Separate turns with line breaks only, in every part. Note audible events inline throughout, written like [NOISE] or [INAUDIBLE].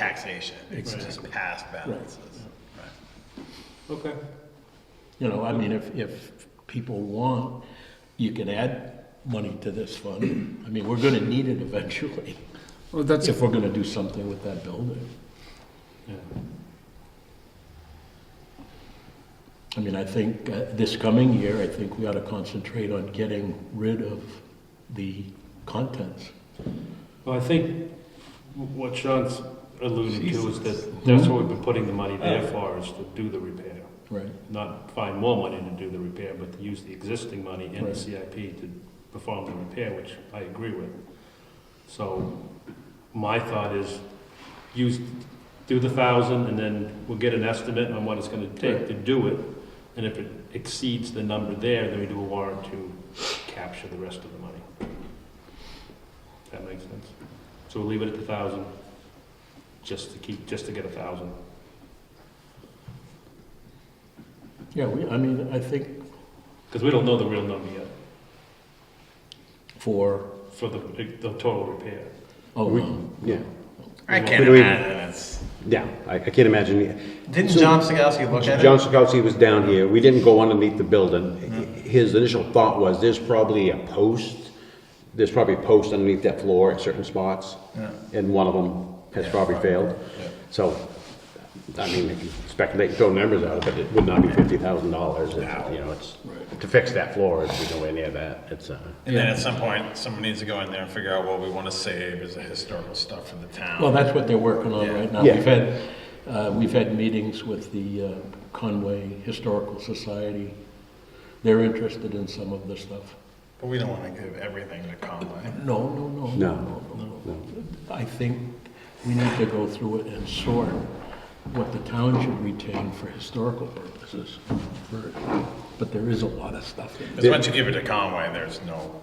taxation, it's just past balances.
Okay.
You know, I mean, if, if people want, you can add money to this fund. I mean, we're gonna need it eventually,
Well, that's,
if we're gonna do something with that building. I mean, I think uh, this coming year, I think we ought to concentrate on getting rid of the contents.
Well, I think what Sean's alluding to is that that's what we've been putting the money there for, is to do the repair.
Right.
Not find more money to do the repair, but to use the existing money in the
Right.
CIP to perform the repair, which I agree with. So my thought is, use, do the thousand, and then we'll get an estimate on what it's gonna take
Right.
to do it. And if it exceeds the number there, then we do a warrant to capture the rest of the money. That makes sense. So we'll leave it at the thousand, just to keep, just to get a thousand.
Yeah, we, I mean, I think
Because we don't know the real number yet
for,
for the, the total repair.
oh,
We-
no.
Yeah,
I can't
But we-
imagine it's,
yeah, I, I can't imagine.
didn't John Stigowski look at
John
it?
Sikowski was down here, we didn't go underneath the building. His initial thought was, there's probably a post, there's probably a post underneath that floor at certain spots, and one of them has probably failed. So, I mean, if you speculate, and throw numbers out, but it would not be fifty thousand dollars, you know, it's, to fix that floor, it's nowhere near that, it's, uh,
And then at some point, someone needs to go in there and figure out what we wanna save as a historical stuff for the
Well,
town.
that's what they're working on right now.
Yeah.
We've had, uh, we've had meetings with the uh, Conway Historical Society. They're interested in some of this stuff.
But we don't wanna give everything to Conway.
No, no, no.
No.
no. I think we need to go through it and sort what the town should retain for historical purposes. for- But there is a lot of stuff in there.
Because once you give it to Conway, there's no,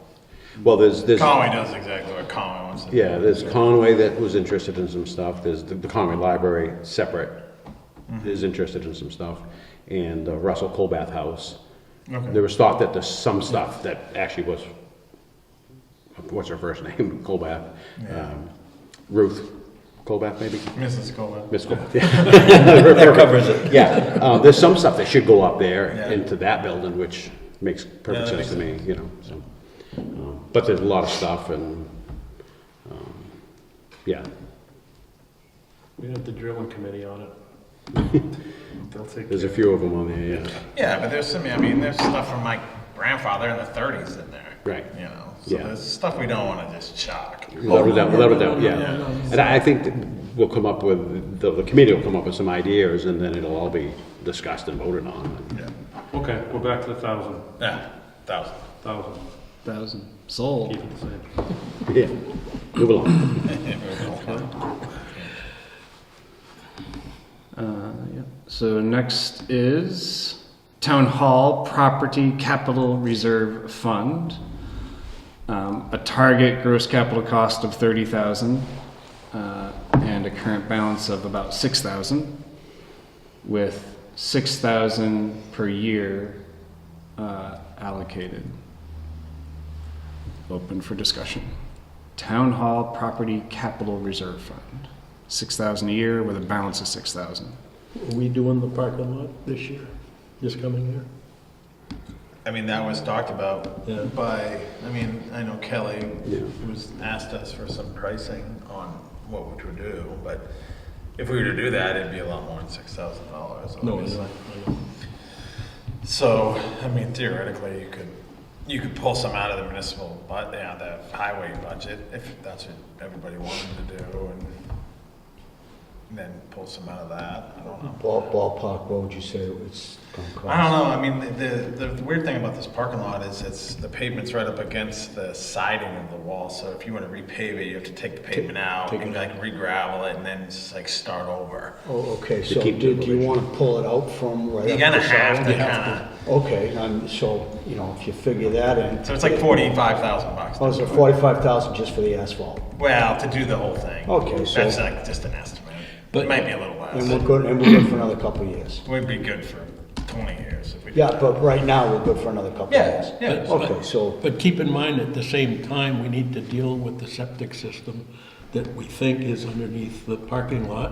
well, there's, there's.
Conway does exactly what Conway wants to do.
Yeah, there's Conway that was interested in some stuff, there's the the Conway Library, separate, is interested in some stuff, and uh, Russell Colbath House. There was thought that there's some stuff that actually was, what's her first [LAUGHS] name, Colbath? um, Ruth Colbath, maybe?
Mrs. Colwell.
Miss Colbath, [LAUGHS] That covers it. Yeah, uh, there's some stuff that should go up there
Yeah.
into that building, which makes
Yeah,
perfect
that
sense
makes
to me, you know, so. um, But there's a lot of stuff and, um, yeah.
We have the drilling committee on it. [LAUGHS] They'll take care
There's a
of
few of them on there, yeah.
Yeah, but there's some, I mean, there's stuff from my grandfather in the 30s in there.
Right.
You know, so
Yeah.
there's stuff we don't want to just chuck.
Without a doubt, without a doubt,
No, no, no,
yeah.
no.
And I I think that we'll come up with, the, the committee will come up with some ideas and then it'll all be discussed and voted on. [LAUGHS]
Yeah.
it. Okay, we're back to the thousand,
Yeah, thousand.
thousand,
thousand, sold.
keep it the same.
Yeah, move along.
Uh, yeah. So next is Town Hall Property Capital Reserve Fund. Um, a target gross capital cost of thirty thousand, uh, and a current balance of about six thousand, with six thousand per year, uh, allocated. Open for discussion. Town Hall Property Capital Reserve Fund, six thousand a year with a balance of six thousand.
Are we doing the parking lot this year, this coming year?
I mean, that was talked about
Yeah.
by, I mean, I know Kelly
Yeah.
was asked us for some pricing on what we would do, but if we were to do that, it'd be a lot more than six thousand dollars.
No, it's not.
So, I mean, theoretically, you could, you could pull some out of the municipal, but, yeah, the highway budget, if that's what everybody wanted to do, and then pull some out of that, I don't know.
Ball- Ballpark, what would you say it's going to
I don't
cost?
know, I mean, the- the, the weird thing about this parking lot is it's, the pavement's right up against the siding of the wall, so if you wanna repave it, you have to take the pavement out
take
and
it
like re-gravel it and then just like start over.
Oh, okay, so
keep
do
the
do you want to pull it out from right up?
You're gonna
the
have
side?
to kinda,
Okay, and so, you know, if you figure that in.
so it's like forty-five thousand bucks.
Oh, so forty-five thousand just for the asphalt?
Well, to do the whole thing.
Okay, so-
That's like just an estimate.
But-
It might be a little
And we're
less.
good, and we're good for another couple of years?
We'd be good for twenty years if we. did
Yeah,
that.
but right now, we're good for another couple of
Yeah,
years?
yeah.
But-
Okay,
but-
so-
But keep in mind, at the same time, we need to deal with the septic system that we think is underneath the parking lot